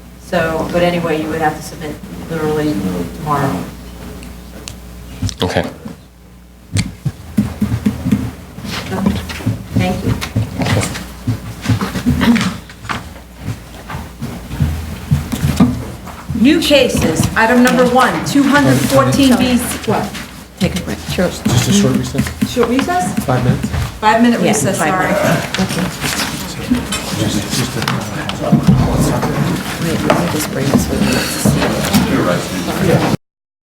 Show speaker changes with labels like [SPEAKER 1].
[SPEAKER 1] So, but anyway, you would have to submit literally tomorrow.
[SPEAKER 2] Okay.
[SPEAKER 1] Thank you. New cases, item number one, 214B. What?
[SPEAKER 3] Take a break. Sure.
[SPEAKER 2] Just a short recess,
[SPEAKER 1] Short recess?
[SPEAKER 2] five minutes?
[SPEAKER 1] Five-minute
[SPEAKER 3] Yeah,
[SPEAKER 1] recess,
[SPEAKER 3] five
[SPEAKER 1] sorry.
[SPEAKER 3] Wait, let me just bring this with me.